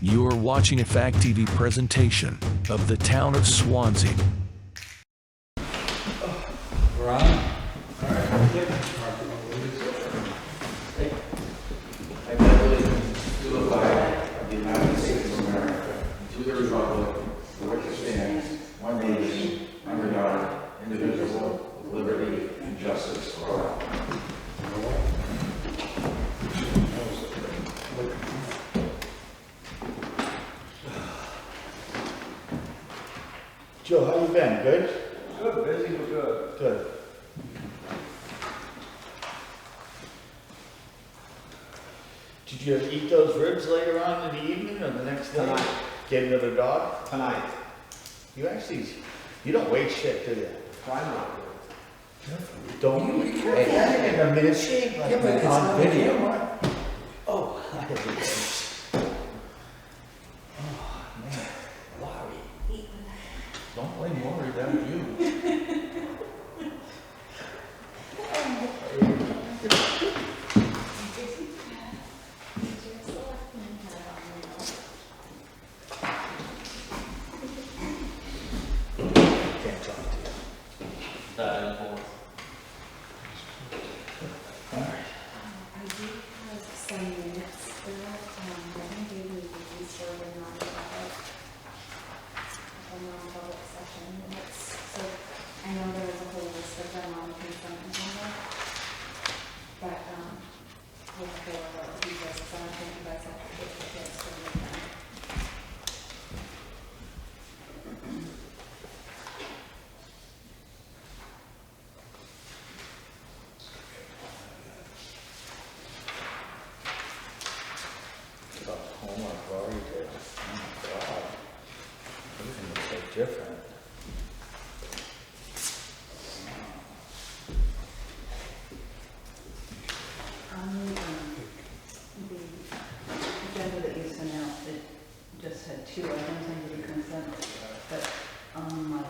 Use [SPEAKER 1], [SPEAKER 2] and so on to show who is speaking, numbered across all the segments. [SPEAKER 1] You are watching a Fact TV presentation of the town of Swansea.
[SPEAKER 2] Joe, how you been? Good?
[SPEAKER 3] Good, busy, but good.
[SPEAKER 2] Good. Did you eat those ribs later on in the evening or the next day?
[SPEAKER 3] Tonight.
[SPEAKER 2] Get another dog?
[SPEAKER 3] Tonight,
[SPEAKER 2] You actually, you don't weigh shit, do you?
[SPEAKER 3] try not to.
[SPEAKER 2] Don't. Hey, I think I'm in a shape like
[SPEAKER 4] Yeah, but
[SPEAKER 2] that
[SPEAKER 4] it's
[SPEAKER 2] on
[SPEAKER 4] not
[SPEAKER 2] video.
[SPEAKER 4] camera.
[SPEAKER 2] Oh, I have it. Oh, man. Don't blame Lori, that was you. Can't talk to you.
[SPEAKER 4] I do have some minutes there, um, I think maybe we could be serving non-public. a non-public session minutes, so I know there was a whole list of them on the consent agenda. But, um, we'll go over it, because I don't think you guys have to get the kids from the time.
[SPEAKER 2] Got homework already did. Oh my god. Everything looks so different.
[SPEAKER 5] On the, um, the agenda that you sent out, it just had two items under the consent, but on my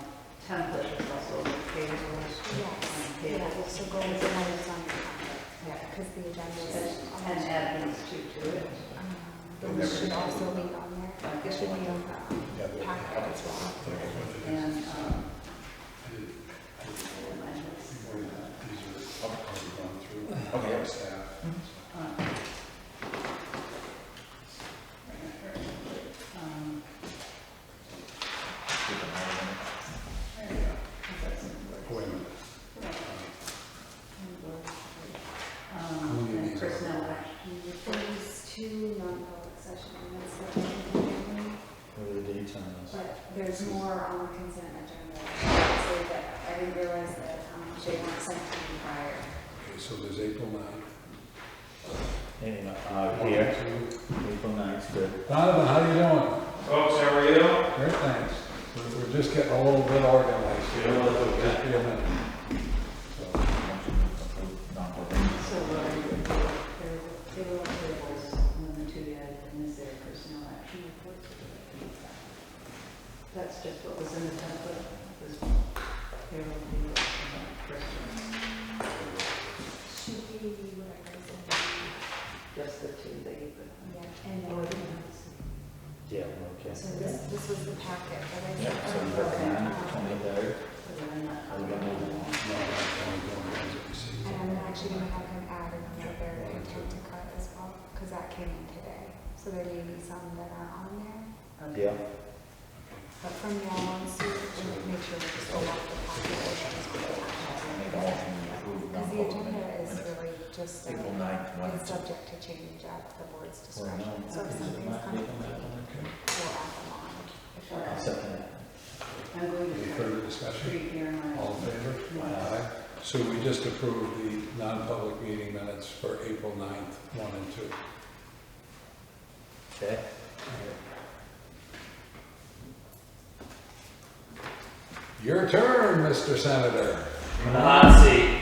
[SPEAKER 5] template, it's also the payables.
[SPEAKER 4] Yes,
[SPEAKER 5] and
[SPEAKER 4] yeah, we'll
[SPEAKER 5] payables,
[SPEAKER 4] still go into one of those on the topic, yeah, because the agenda is.
[SPEAKER 5] And add these two to it.
[SPEAKER 4] Um, But we should also be on there, it should be on the packet as well.
[SPEAKER 5] And, um, and I was,
[SPEAKER 2] Okay.
[SPEAKER 5] um, um, um, and personnel action
[SPEAKER 4] There's two non-public session minutes that we can do,
[SPEAKER 2] What are the dates on this?
[SPEAKER 4] but there's more um, on the consent agenda. So that I didn't realize that um, they weren't sent to me prior.
[SPEAKER 6] Okay, so there's April 9.
[SPEAKER 2] Hey, uh, here, April ninth, good.
[SPEAKER 6] Donovan, how you doing?
[SPEAKER 3] Folks, how are you?
[SPEAKER 6] Great, thanks. We're- We're just getting a little bit organized here. Just be a minute. So,
[SPEAKER 5] So, uh, there there were tables, and then the two guys, and is there personnel action reports? That's just what was in the template, was payroll, payroll, personnel,
[SPEAKER 4] Should be whatever is in
[SPEAKER 5] just the two that you put.
[SPEAKER 4] there. Yeah, and
[SPEAKER 5] on.
[SPEAKER 4] then,
[SPEAKER 2] Yeah, we're okay.
[SPEAKER 4] so this, this was the packet that I.
[SPEAKER 2] Yeah, so we're on
[SPEAKER 4] Um,
[SPEAKER 2] twenty-third.
[SPEAKER 5] But I'm not-
[SPEAKER 2] Are we gonna move
[SPEAKER 6] no, I'm going to go and see.
[SPEAKER 4] And I'm actually gonna have him add another intent to cut as well, because that came in today. So there may be some that are on there,
[SPEAKER 5] Okay.
[SPEAKER 2] Yeah.
[SPEAKER 4] but from now on, Sue, we'll make sure we just go off the packet. Because the agenda is really just, uh,
[SPEAKER 7] April 9th, one
[SPEAKER 4] is
[SPEAKER 7] to
[SPEAKER 4] subject to change at the board's
[SPEAKER 2] We're
[SPEAKER 4] discretion.
[SPEAKER 2] not.
[SPEAKER 4] So if something's coming, we'll add them on. If we're-
[SPEAKER 2] Second that.
[SPEAKER 5] I'm going
[SPEAKER 6] Any
[SPEAKER 5] to
[SPEAKER 6] further discussion?
[SPEAKER 5] treat your mind.
[SPEAKER 6] All in favor? Aye. So we just approved the non-public meeting minutes for April 9th, 1 and 2.
[SPEAKER 2] Okay.
[SPEAKER 6] Your turn, Mr. Senator.
[SPEAKER 3] In the hot seat.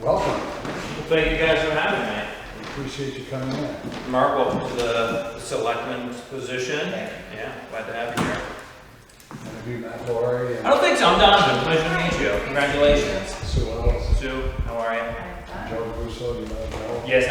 [SPEAKER 6] Welcome.
[SPEAKER 3] Well, thank you guys for having
[SPEAKER 6] We Appreciate you coming in.
[SPEAKER 3] me. Mark, welcome to the selectman's position. Yeah, glad to have you here.
[SPEAKER 6] And have you met Lori
[SPEAKER 3] I
[SPEAKER 6] and
[SPEAKER 3] don't think so, I'm Donovan, pleasure to meet you. Congratulations.
[SPEAKER 6] Sue Ellis?
[SPEAKER 3] Sue, how are you?
[SPEAKER 6] Joe Russo, you know Joe?
[SPEAKER 3] Yes,